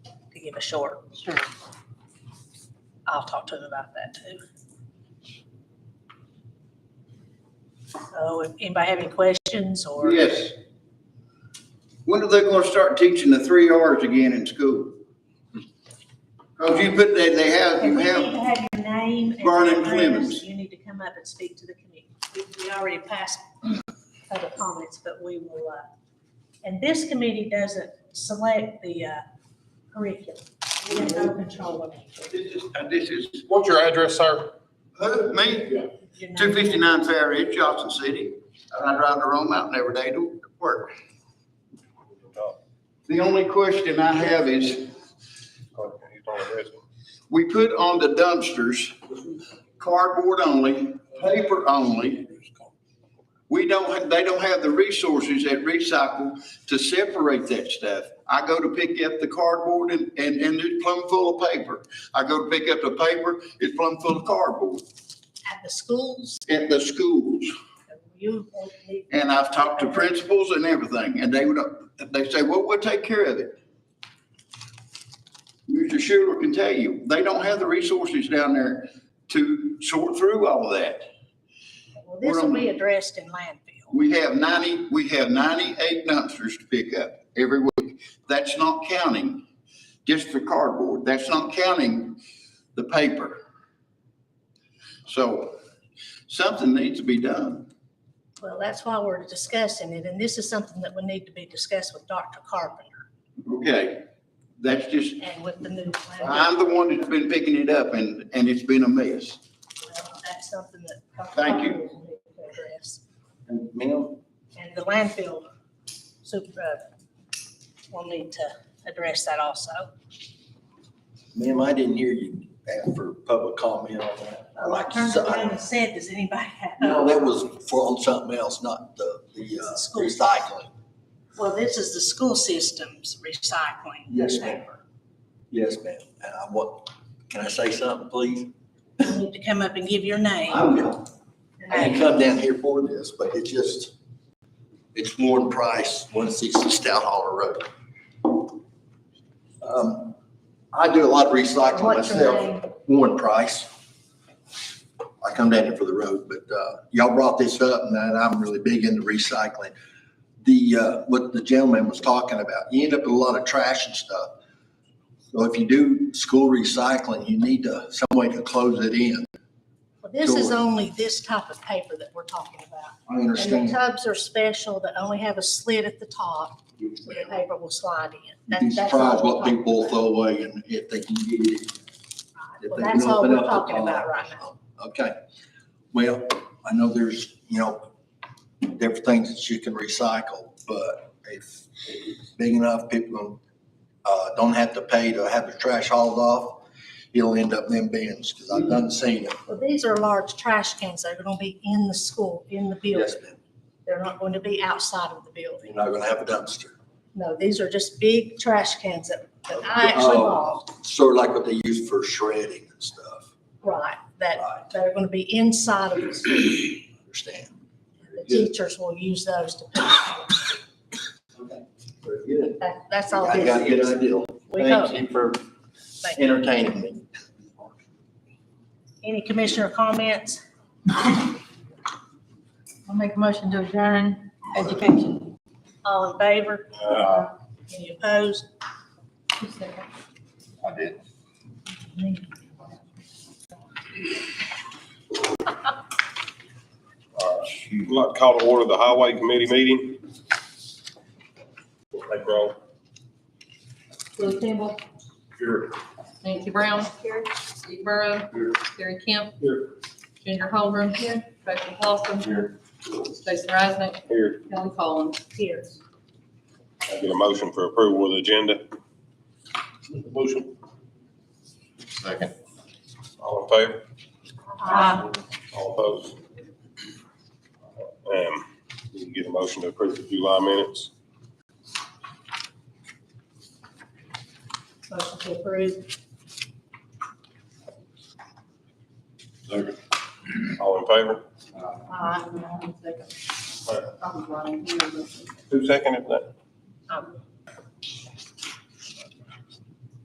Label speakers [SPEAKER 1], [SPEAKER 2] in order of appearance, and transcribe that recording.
[SPEAKER 1] to give a short.
[SPEAKER 2] Sure.
[SPEAKER 1] I'll talk to them about that too. So if anybody have any questions or?
[SPEAKER 3] Yes. When are they gonna start teaching the three Rs again in school? Cause you put, they, they have,
[SPEAKER 1] And
[SPEAKER 3] you
[SPEAKER 1] we need to
[SPEAKER 3] have,
[SPEAKER 1] have your name. and
[SPEAKER 3] Vernon
[SPEAKER 1] your
[SPEAKER 3] Clemens.
[SPEAKER 1] address. You need to come up and speak to the committee. We, we already passed other comments, but we will, uh, and this committee doesn't select the, uh, curriculum. We have no control over it.
[SPEAKER 3] this is, uh, this is,
[SPEAKER 4] What's your address, sir?
[SPEAKER 3] who, me?
[SPEAKER 1] Your name.
[SPEAKER 3] Two fifty-nine Fairhead, Johnson City. And I drive to Rome Mountain every day to work. The only question I have is, we put on the dumpsters cardboard only, paper only. We don't, ha- they don't have the resources at recycle to separate that stuff. I go to pick up the cardboard and, and, and it's plumb full of paper. I go to pick up the paper, it's plumb full of cardboard
[SPEAKER 1] At the schools,
[SPEAKER 3] at the schools.
[SPEAKER 1] you won't need
[SPEAKER 3] And I've talked to principals and everything, and they would, they say, well, we'll take care of it. Mr. Schuler can tell you, they don't have the resources down there to sort through all of that.
[SPEAKER 1] Well, this will be addressed in landfill.
[SPEAKER 3] We have ninety, we have ninety-eight dumpsters to pick up every week. That's not counting just the cardboard. That's not counting the paper. So something needs to be done.
[SPEAKER 1] Well, that's why we're discussing it, and this is something that would need to be discussed with Dr. Carpenter
[SPEAKER 3] Okay, that's just,
[SPEAKER 1] and with the new. landfill.
[SPEAKER 3] I'm the one that's been picking it up and, and it's been a mess.
[SPEAKER 1] Well, That's something that. Dr.
[SPEAKER 3] Thank you.
[SPEAKER 1] Carpenter will need to address.
[SPEAKER 3] Ma'am?
[SPEAKER 1] And the landfill super, uh, will need to address that also.
[SPEAKER 5] Ma'am, I didn't hear you ask for public comment on that. I like, to
[SPEAKER 1] Turned
[SPEAKER 5] say-
[SPEAKER 1] around
[SPEAKER 5] I-
[SPEAKER 1] and said, does anybody have?
[SPEAKER 5] no, that was for on something else, not the, the uh,
[SPEAKER 1] School.
[SPEAKER 5] recycling.
[SPEAKER 1] Well, this is the school system's recycling.
[SPEAKER 5] Yes, ma'am.
[SPEAKER 1] paper.
[SPEAKER 5] Yes, ma'am. And I want, can I say something, please?
[SPEAKER 1] You need to come up and give your name.
[SPEAKER 5] I will. I didn't come down here for this, but it just, it's Warren Price, one sixty Stout Holler Road. Um, I do a lot of recycling
[SPEAKER 1] What's your
[SPEAKER 5] myself, Warren Price. I come down here for the road, but, uh, y'all brought this up and I- I'm really big into recycling. The, uh, what the gentleman was talking about, you end up with a lot of trash and stuff. So if you do school recycling, you need to, some way to close it in.
[SPEAKER 1] Well, This is
[SPEAKER 5] Sure.
[SPEAKER 1] only this type of paper that we're talking about.
[SPEAKER 5] I
[SPEAKER 1] And the
[SPEAKER 5] understand.
[SPEAKER 1] tubs are special, that only have a slit at the top, where the paper will slide in.
[SPEAKER 5] You'd
[SPEAKER 1] That-
[SPEAKER 5] be
[SPEAKER 1] that's all
[SPEAKER 5] surprised
[SPEAKER 1] we're
[SPEAKER 5] what
[SPEAKER 1] talking
[SPEAKER 5] people
[SPEAKER 1] about.
[SPEAKER 5] throw away and if they can get it. if they
[SPEAKER 1] Well,
[SPEAKER 5] can
[SPEAKER 1] that's all
[SPEAKER 5] open
[SPEAKER 1] we're
[SPEAKER 5] up the
[SPEAKER 1] talking about
[SPEAKER 5] box.
[SPEAKER 1] right now.
[SPEAKER 5] Okay, well, I know there's, you know, there are things that you can recycle, but if it's big enough, people uh, don't have to pay to have their trash hauled off, it'll end up in them bins, because I've done seen it.
[SPEAKER 1] Well, these are large trash cans. They're going to be in the school, in the
[SPEAKER 5] Yes,
[SPEAKER 1] building.
[SPEAKER 5] ma'am,
[SPEAKER 1] They're not going to be outside of the building.
[SPEAKER 5] you're not gonna have a dumpster,
[SPEAKER 1] No, these are just big trash cans that, that I actually
[SPEAKER 5] Oh.
[SPEAKER 1] bought,
[SPEAKER 5] sort of like what they use for shredding and stuff,
[SPEAKER 1] right, that,
[SPEAKER 5] right,
[SPEAKER 1] that are going to be inside of the school.
[SPEAKER 5] understand?
[SPEAKER 1] The teachers will use those to,
[SPEAKER 5] Okay, Very good.
[SPEAKER 1] that, that's all
[SPEAKER 5] I
[SPEAKER 1] this
[SPEAKER 5] got a
[SPEAKER 1] is.
[SPEAKER 5] good idea.
[SPEAKER 1] We hope.
[SPEAKER 5] you for
[SPEAKER 1] Thank you.
[SPEAKER 5] entertaining me.
[SPEAKER 1] Any commissioner comments?
[SPEAKER 2] I'll make a motion to adjourn education.
[SPEAKER 1] All in favor? Any opposed?
[SPEAKER 4] I did. I'd like to call to order the Highway Committee meeting. Thank you all.
[SPEAKER 6] Will Campbell.
[SPEAKER 4] Here.
[SPEAKER 6] Nancy Brown. Here. Steve Burrow.
[SPEAKER 4] Here.
[SPEAKER 6] Gary Kemp.
[SPEAKER 4] Here.
[SPEAKER 6] Junior Holgram. Here. Tracy Lawson.
[SPEAKER 4] Here.
[SPEAKER 6] Jason Reisnick.
[SPEAKER 4] Here,
[SPEAKER 6] Kelly Collins.
[SPEAKER 1] Here.
[SPEAKER 4] I get a motion for approval of the agenda. Motion. Second. All in favor?
[SPEAKER 1] Aye.
[SPEAKER 4] All opposed? Um, we can get a motion to approve the July minutes.
[SPEAKER 1] Motion to approve.
[SPEAKER 4] All in favor?
[SPEAKER 6] Aye. Second. I'm running here.
[SPEAKER 4] Who seconded that?
[SPEAKER 1] Um,